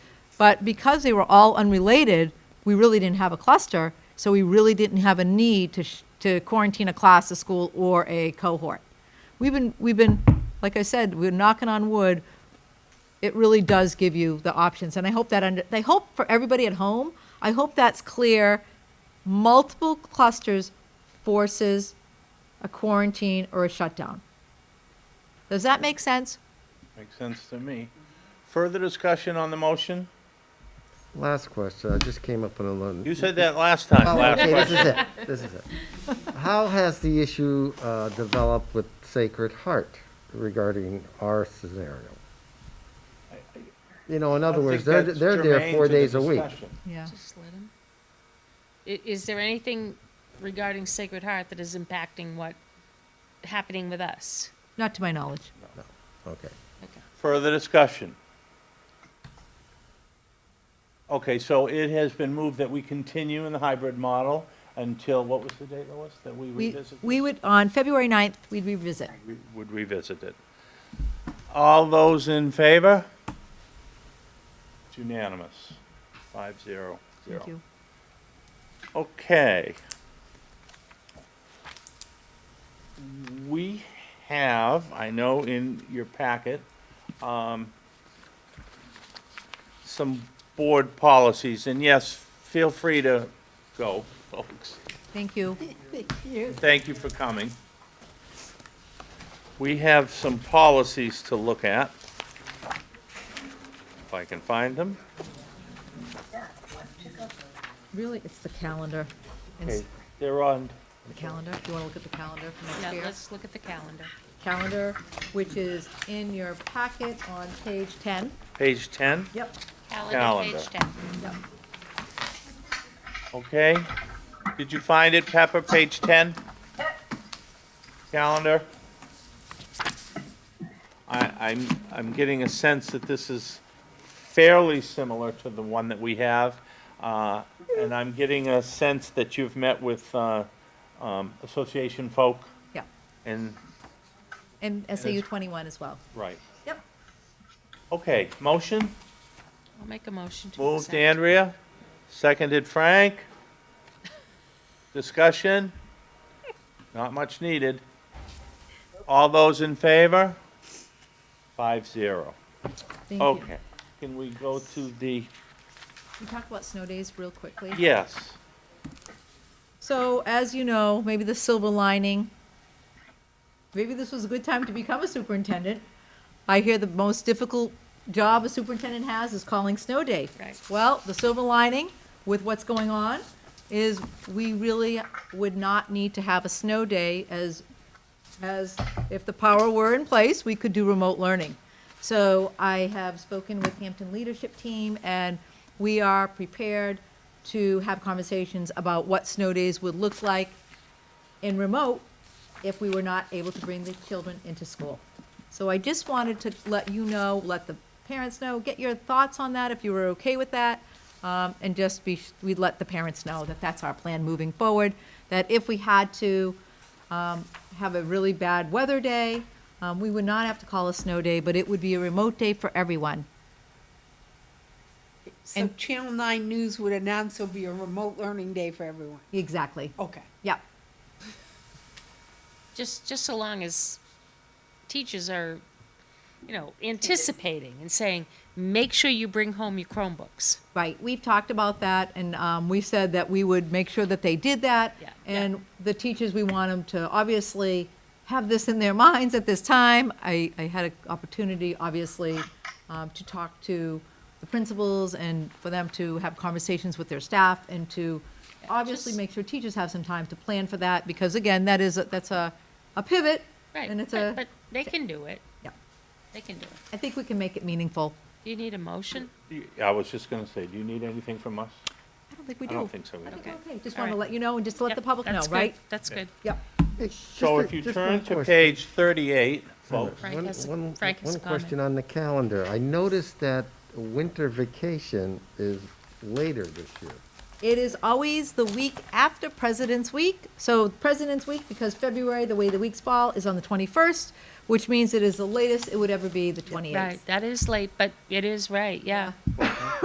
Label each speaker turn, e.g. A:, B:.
A: But because they were all unrelated, we really didn't have a cluster, so we really didn't have a need to, sh- to quarantine a class, a school, or a cohort. We've been, we've been, like I said, we're knocking on wood. It really does give you the options, and I hope that, under, I hope for everybody at home, I hope that's clear. Multiple clusters forces a quarantine or a shutdown. Does that make sense?
B: Makes sense to me. Further discussion on the motion?
C: Last question, I just came up on a loan.
B: You said that last time,
C: Oh,
B: last
C: okay, this
B: question.
C: is it, this is it. How has the issue uh, developed with Sacred Heart regarding our scenario? You know, in other words, they're, they're there four days a week.
A: Yeah.
D: Just let him. I- is there anything regarding Sacred Heart that is impacting what happening with us?
A: Not to my knowledge.
C: Okay.
B: Further discussion? Okay, so it has been moved that we continue in the hybrid model until, what was the date, Lois, that we
A: We,
B: revisit?
A: we would, on February 9th, we'd revisit.
B: We Would revisit it. All those in favor? It's unanimous, five zero zero.
A: Thank you.
B: Okay. We have, I know in your packet, um, some board policies, and yes, feel free to go, folks.
A: Thank you.
B: Thank you for coming. We have some policies to look at. If I can find them.
A: Really, it's the calendar. It's
B: Okay, They're on,
A: the calendar. Do you want to look at the calendar for
D: Yeah,
A: next year?
D: let's look at the calendar.
A: Calendar, which is in your packet on page 10.
B: page ten,
A: Yep.
D: Calendar, page ten.
A: Yep.
B: okay? Did you find it, Pepper, page ten? Calendar? I, I'm, I'm getting a sense that this is fairly similar to the one that we have. Uh, and I'm getting a sense that you've met with, uh, um, association folk
A: Yeah.
B: and,
A: And SAU
B: it's-
A: 21 as well.
B: right.
A: Yep.
B: Okay, motion?
D: I'll make a motion to
B: Moved
D: accept.
B: Andrea, seconded Frank. Discussion? Not much needed. All those in favor? Five zero.
A: Thank you.
B: Okay. Can we go to the,
A: We talked about snow days real quickly.
B: yes,
A: So, as you know, maybe the silver lining, maybe this was a good time to become a superintendent. I hear the most difficult job a superintendent has is calling snow day.
D: Right.
A: Well, the silver lining with what's going on is we really would not need to have a snow day as, as if the power were in place, we could do remote learning. So I have spoken with Hampton Leadership Team, and we are prepared to have conversations about what snow days would look like in remote if we were not able to bring the children into school. So I just wanted to let you know, let the parents know, get your thoughts on that, if you were okay with that. Um, and just be, we'd let the parents know that that's our plan moving forward, that if we had to, um, have a really bad weather day, um, we would not have to call a snow day, but it would be a remote day for everyone.
E: So
A: And-
E: Channel Nine News would announce it'll be a remote learning day for everyone.
A: Exactly.
E: Okay.
A: Yeah.
D: Just, just so long as teachers are, you know, anticipating and saying, make sure you bring home your Chromebooks.
A: Right, we've talked about that, and um, we said that we would make sure that they did that.
D: Yeah.
A: And the teachers, we want them to obviously have this in their minds at this time. I, I had an opportunity, obviously, um, to talk to the principals and for them to have conversations with their staff and to obviously
D: just-
A: make sure teachers have some time to plan for that, because again, that is, a- that's a, a pivot.
D: Right,
A: And it's
D: but,
A: a,
D: but they can do it.
A: Yeah.
D: They can do it.
A: I think we can make it meaningful.
D: Do you need a motion?
B: I was just gonna say, do you need anything from us?
A: I don't think we
B: I
A: do.
B: don't think so either.
A: I think we're
D: Okay.
A: okay, just
D: All
A: want to
D: right.
A: let you know and just to let
D: Yep,
A: the public know,
D: that's good.
A: right?
D: That's good.
A: Yep.
B: So
C: Hey, just
B: if
C: a-
B: you
C: just one
B: turn to
C: question.
B: page thirty-eight, folks,
D: Frank
C: One-
D: has a-
C: one-
D: Frank has a
C: One question on the calendar. I noticed that winter vacation is later this year.
A: It is always the week after President's Week. So President's Week, because February, the way the weeks fall, is on the 21st, which means it is the latest it would ever be, the 28th.
D: Right, that is late, but it is right, yeah.